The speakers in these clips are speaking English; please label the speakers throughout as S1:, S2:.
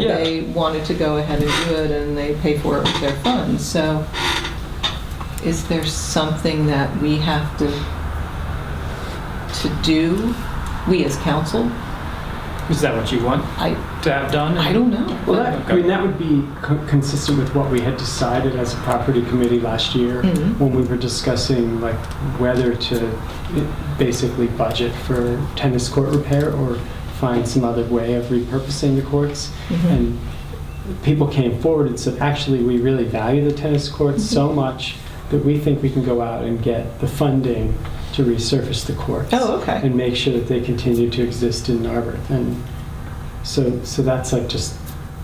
S1: Yeah.
S2: they wanted to go ahead and do it, and they pay for it with their funds. So is there something that we have to, to do, we as council?
S1: Is that what you want
S2: I,
S1: to have done?
S2: I don't know.
S3: Well, that, I mean, that would be co- consistent with what we had decided as a property committee last year
S2: Mhm.
S3: when we were discussing like whether to i- basically budget for tennis court repair or find some other way of repurposing the courts.
S2: Mhm.
S3: And people came forward and said, actually, we really value the tennis courts so much that we think we can go out and get the funding to resurface the courts
S2: Oh, okay.
S3: and make sure that they continue to exist in Narberth. And so, so that's like just,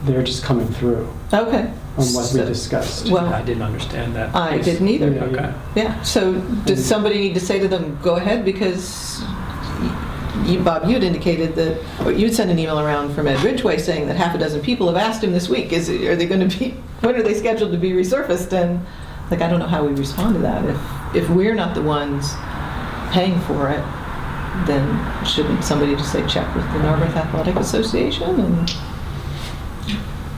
S3: they're just coming through
S2: Okay.
S3: on what we
S2: So-
S3: discussed.
S2: Well-
S1: I didn't understand that.
S2: I didn't either.
S3: Yeah,
S1: Okay.
S3: yeah.
S2: Yeah, so does somebody need to say to them, go ahead, because you, Bob, you had indicated that, or you'd sent an email around from Ed Ridgway saying that half a dozen people have asked him this week, is, are they going to be, when are they scheduled to be resurfaced? And, like, I don't know how we respond to that. If, if we're not the ones paying for it, then shouldn't somebody just say, check with the Narberth Athletic Association? And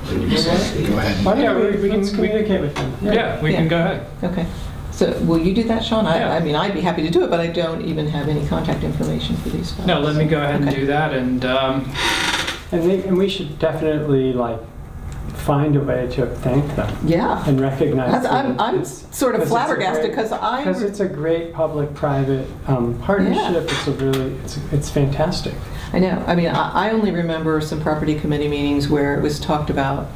S4: Then you say, Go ahead.
S3: Why don't
S1: Yeah,
S3: we,
S1: we-
S3: we can
S1: let's-
S3: communicate with them.
S1: Yeah, we
S2: Yeah.
S1: can go ahead.
S2: Okay, so will you do that, Sean? I,
S1: Yeah.
S2: I mean, I'd be happy to do it, but I don't even have any contact information for these folks.
S1: No, let me go ahead and
S2: Okay.
S1: do that, and, um,
S3: And, they, and we should definitely like find a way to thank them
S2: Yeah.
S3: and recognize
S2: That's-
S3: them.
S2: I'm, I'm
S3: It's-
S2: sort of
S3: Because it's a
S2: flabbergasted
S3: great-
S2: because I,
S3: Because it's a great public-private um, partnership. It's a really, it's, it's fantastic.
S2: I know, I mean, I, I only remember some property committee meetings where it was talked about,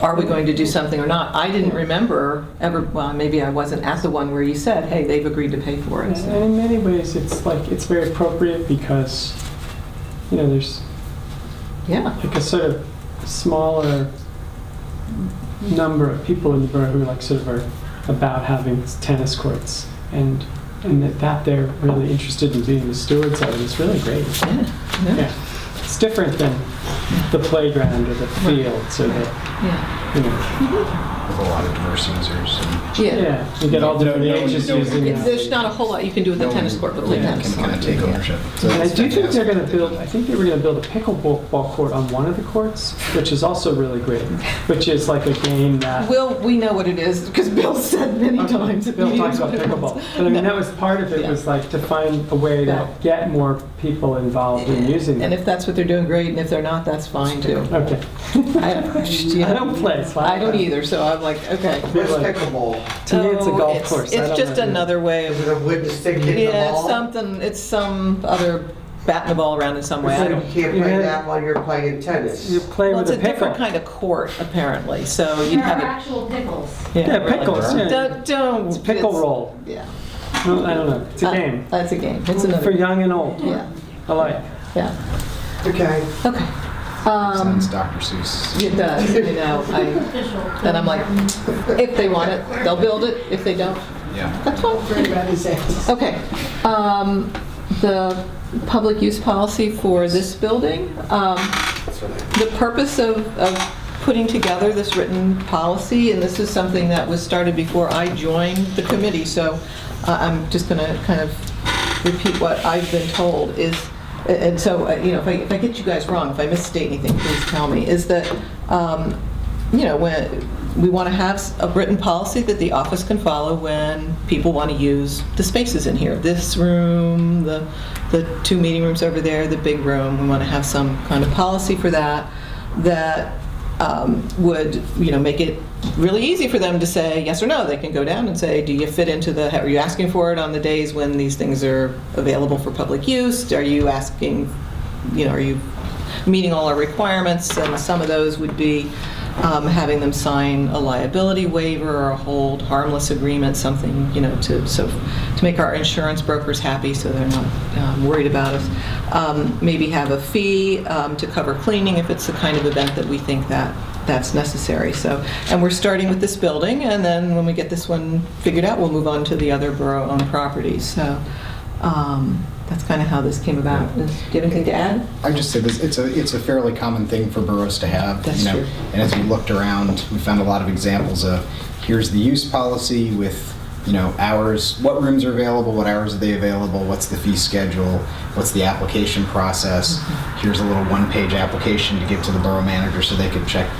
S2: are we going to do something or not? I didn't remember ever, well, maybe I wasn't at the one where you said, hey, they've agreed to pay for it.
S3: And
S2: so.
S3: and in many ways, it's like, it's very appropriate because, you know, there's
S2: Yeah,
S3: like a sort of smaller number of people in the borough who like sort of are about having tennis courts and and that, that they're really interested in being the stewards of it is really great.
S2: yeah, yeah,
S3: Yeah. It's different than the playground or the fields or the
S2: yeah.
S3: you know
S4: With a lot of diverse users. and
S2: Yeah.
S3: yeah. You get all different
S4: No, no,
S3: ages
S4: no.
S3: using
S2: It's-
S3: it.
S2: There's not a whole lot you can do with the
S4: no
S2: tennis
S4: one
S2: court, but play
S3: Yeah,
S4: can-
S2: tennis.
S4: Can kind of take ownership. So
S3: And I
S4: it's
S3: do think they're
S4: fantastic.
S3: going to build. I think they were going to build a pickleball ball court on one of the courts, which is also really great. Which is like a game that
S2: Will, we know what it is, because Bill said many
S3: Okay,
S2: times. at
S3: Uh, Bill
S2: meetings
S3: talks about
S2: what it was.
S3: pickleball. But I mean, that was part of it,
S2: Yeah.
S3: was like to find a way
S2: Yeah.
S3: to get more people involved in using
S2: And
S3: it.
S2: if that's what they're doing, great, and if they're not, that's fine too.
S3: Okay. I don't play. so
S2: I don't either, so I'm like, okay.
S3: They're
S5: Where's
S3: like-
S5: pickleball?
S3: To me, it's a
S2: Oh,
S3: golf course. I
S2: It's
S3: don't
S2: just
S3: know.
S2: another way
S5: Is
S2: of,
S5: it a wooden stick hitting the
S2: yeah, it's
S5: ball?
S2: something, it's some other batting the ball around in some way. I
S5: So
S2: don't-
S5: You can't
S3: You
S5: play
S3: gotta-
S5: that while you're playing tennis.
S3: You play
S2: Well, it's
S3: with a
S2: a
S3: pickle.
S2: different kind of court, apparently, so you'd
S6: There are
S2: have
S6: actual pickles.
S2: it.
S3: Yeah, pickles, yeah.
S2: Don't, don't.
S3: It's pickle
S2: it's-
S3: roll.
S2: Yeah.
S3: No, I don't know. It's a
S2: Uh,
S3: game.
S2: That's a game, it's
S3: For
S2: another,
S3: young and old.
S2: yeah,
S3: I like.
S2: yeah,
S5: Okay.
S2: okay. Um,
S4: Sounds Dr. Seuss.
S2: It does, you know, I,
S6: Official.
S2: and I'm like, if they want it, they'll build it, if they don't,
S4: Yeah.
S2: that's fine. Okay, um, the public use policy for this building, um, the purpose of, of putting together this written policy, and this is something that was started before I joined the committee, so uh, I'm just gonna kind of repeat what I've been told, is, and so, uh, you know, if I, if I get you guys wrong, if I misstate anything, please tell me, is that, um, you know, when, we want to have s- a written policy that the office can follow when people want to use the spaces in here. This room, the, the two meeting rooms over there, the big room, we want to have some kind of policy for that, that um, would, you know, make it really easy for them to say yes or no. They can go down and say, do you fit into the, are you asking for it on the days when these things are available for public use? Are you asking, you know, are you meeting all our requirements? And some of those would be um, having them sign a liability waiver or a hold harmless agreement, something, you know, to, so, to make our insurance brokers happy so they're not um, worried about us. Um, Maybe have a fee um, to cover cleaning if it's the kind of event that we think that, that's necessary. So, and we're starting with this building, and then when we get this one figured out, we'll move on to the other borough-owned properties. So um, that's kind of how this came about. Do you have anything to add?
S4: I would just say this, it's a, it's a fairly common thing for boroughs to have.
S2: That's
S4: you know,
S2: true.
S4: And as we looked around, we found a lot of examples of, here's the use policy with you know, hours, what rooms are available, what hours are they available, what's the fee schedule, what's the
S2: Mm-hmm.
S4: application process. Here's a little one-page application to give to the borough manager so they can check